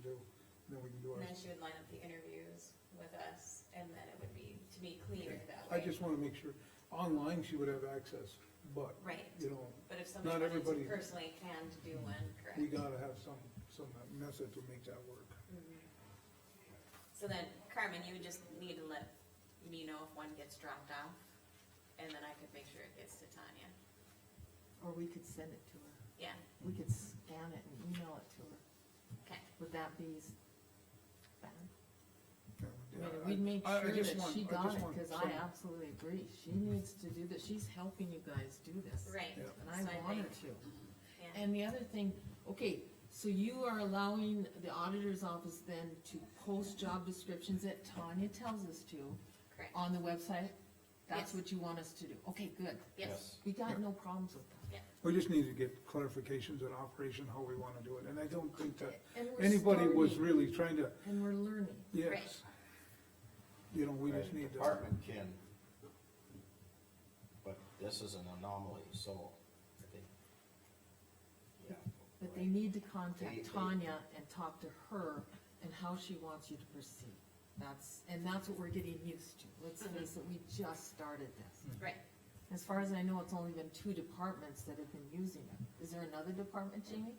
do, then we can do And our. then she would line up the interviews with us, and then it would be, to me, cleaner that way. I just wanna make sure, online she would have access, but, Right, you know, but if somebody Not wanted to everybody- personally can to do one, correct? we gotta have some, some method to make that work. Mhm. So then, Carmen, you would just need to let me know if one gets dropped off, and then I could make sure it gets to Tanya, Or we could send it to her, yeah, we could scan it and email it to her, Mm-hmm. okay. would that be s- bad? Yeah, I mean, we'd make I- I sure just that want- she I got just it, want cause I some- absolutely agree, she needs to do this, she's helping you guys do this. Right. Yeah. And so I want her think- Mm-hmm. to. yeah. And the other thing, okay, so you are allowing the auditor's office then to post job descriptions that Tanya tells us to Correct, on the website? That's Yes. what you want us to do? Okay, good. yes, We got no problems with that. We just need to get clarifications and operation, how we wanna do it, and I don't think that And we're anybody was starting, really trying to, And we're learning. yes. You know, we just need to. Department can, but this is an anomaly, so I think, yeah. But they need to They- contact they- Tanya and talk to her and how she wants you to proceed. That's, and that's what we're getting used to. Let's face it, we just started this. right, As far as I know, it's only been two departments that have been using it. Is there another department, Jamie?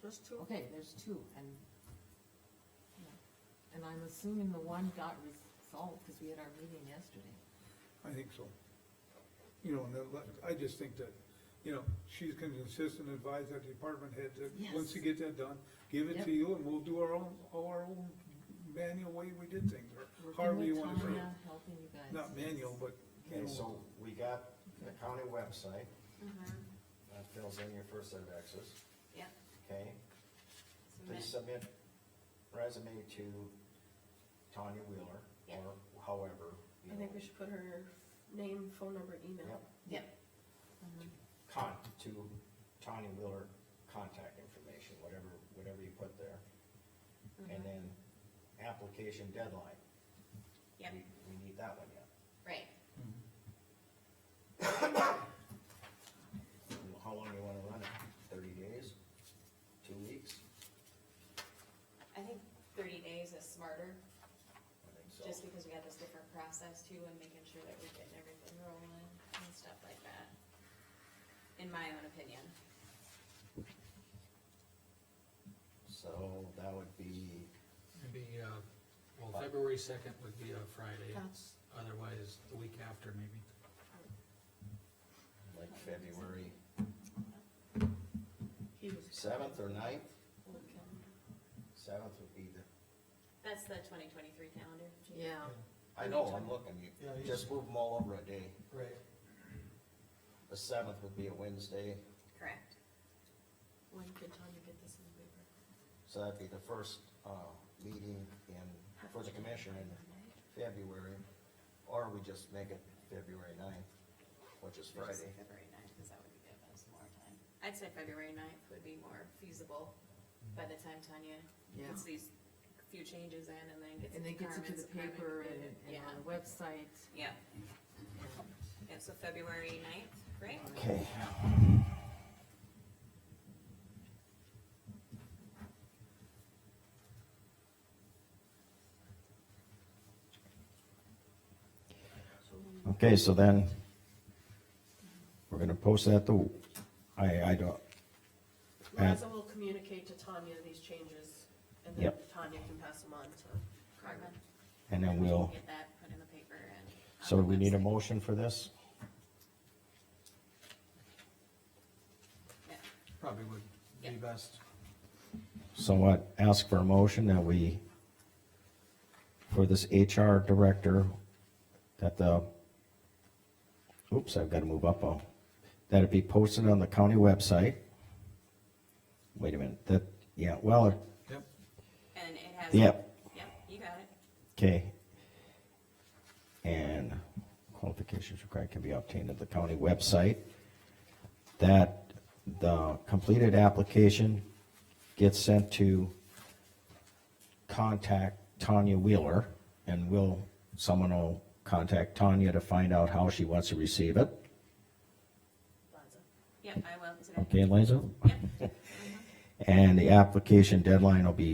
Just two. Okay, there's two, and, yeah. and I'm assuming the one got resolved, because we had our meeting yesterday. I think so. You know, and that- I just think that, you know, she's gonna insist and advise that department head that, once you Yes. get that done, give it to Yep. you and we'll do our own, our own manual way we did things, or Working however with you wanna say Tanya, it. Helping you guys. Not manual, but, you Okay, know, so we got the county website, mhm, that fills in your first set of X's, yep. okay? Please Submit. submit resume to Tanya Wheeler, Yeah. or however. you I think know, we should put her name, phone number, email. Yep, Yep, con, to Tanya Wheeler contact information, whatever, whatever you put there. Mm-hmm. And then application deadline. yep, We, we need that one yet. right, Well, How long do you wanna run it? Thirty days? Two weeks? I think thirty days is smarter, I think just so. because we got this different process too, and making sure that we're getting everything rolling and stuff like that. In my own opinion, So that would be, Maybe, uh, well, February second would be a Friday, That's, otherwise the week after maybe. like February he was. seventh or ninth? Okay. Seventh would be the, that's the twenty twenty-three calendar. Yeah, I know, I'm looking, you, Yeah, you- just move them all over a day. Right. The seventh would be a Wednesday, Correct, When could Tanya get this in the paper? so that'd be the first, uh, meeting in, for the commissioner in February. Or we just make it February ninth, which is Just Friday. February ninth, cause that would give us more time. I'd say February ninth would be more feasible by the time Tanya yeah. gets these few changes in and then gets. And then gets it to Carmen's the paper apartment. and, and Yeah, on the website. yeah, yeah, so February ninth, right? Okay. Okay, so then, we're gonna post that to, I, I don't, And- Liza will communicate to Tanya these changes, and then Yep. Tanya can pass them on to. Carmen. and then we'll, Get that put in the paper and. on so the we need a website. motion for this? Yeah, Probably would be Yeah. best. So what, ask for a motion that we, for this HR director, that the, oops, I've gotta move up, oh, that it be posted on the county website. Wait a minute, that, yeah, well, it- Yep. And it has. Yep. Yep, you got it, okay. And qualifications required can be obtained at the county website. That the completed application gets sent to contact Tanya Wheeler, and will, someone will contact Tanya to find out how she wants to receive it. Liza. yep, I will today. Okay, Liza? Yep. And the application deadline will be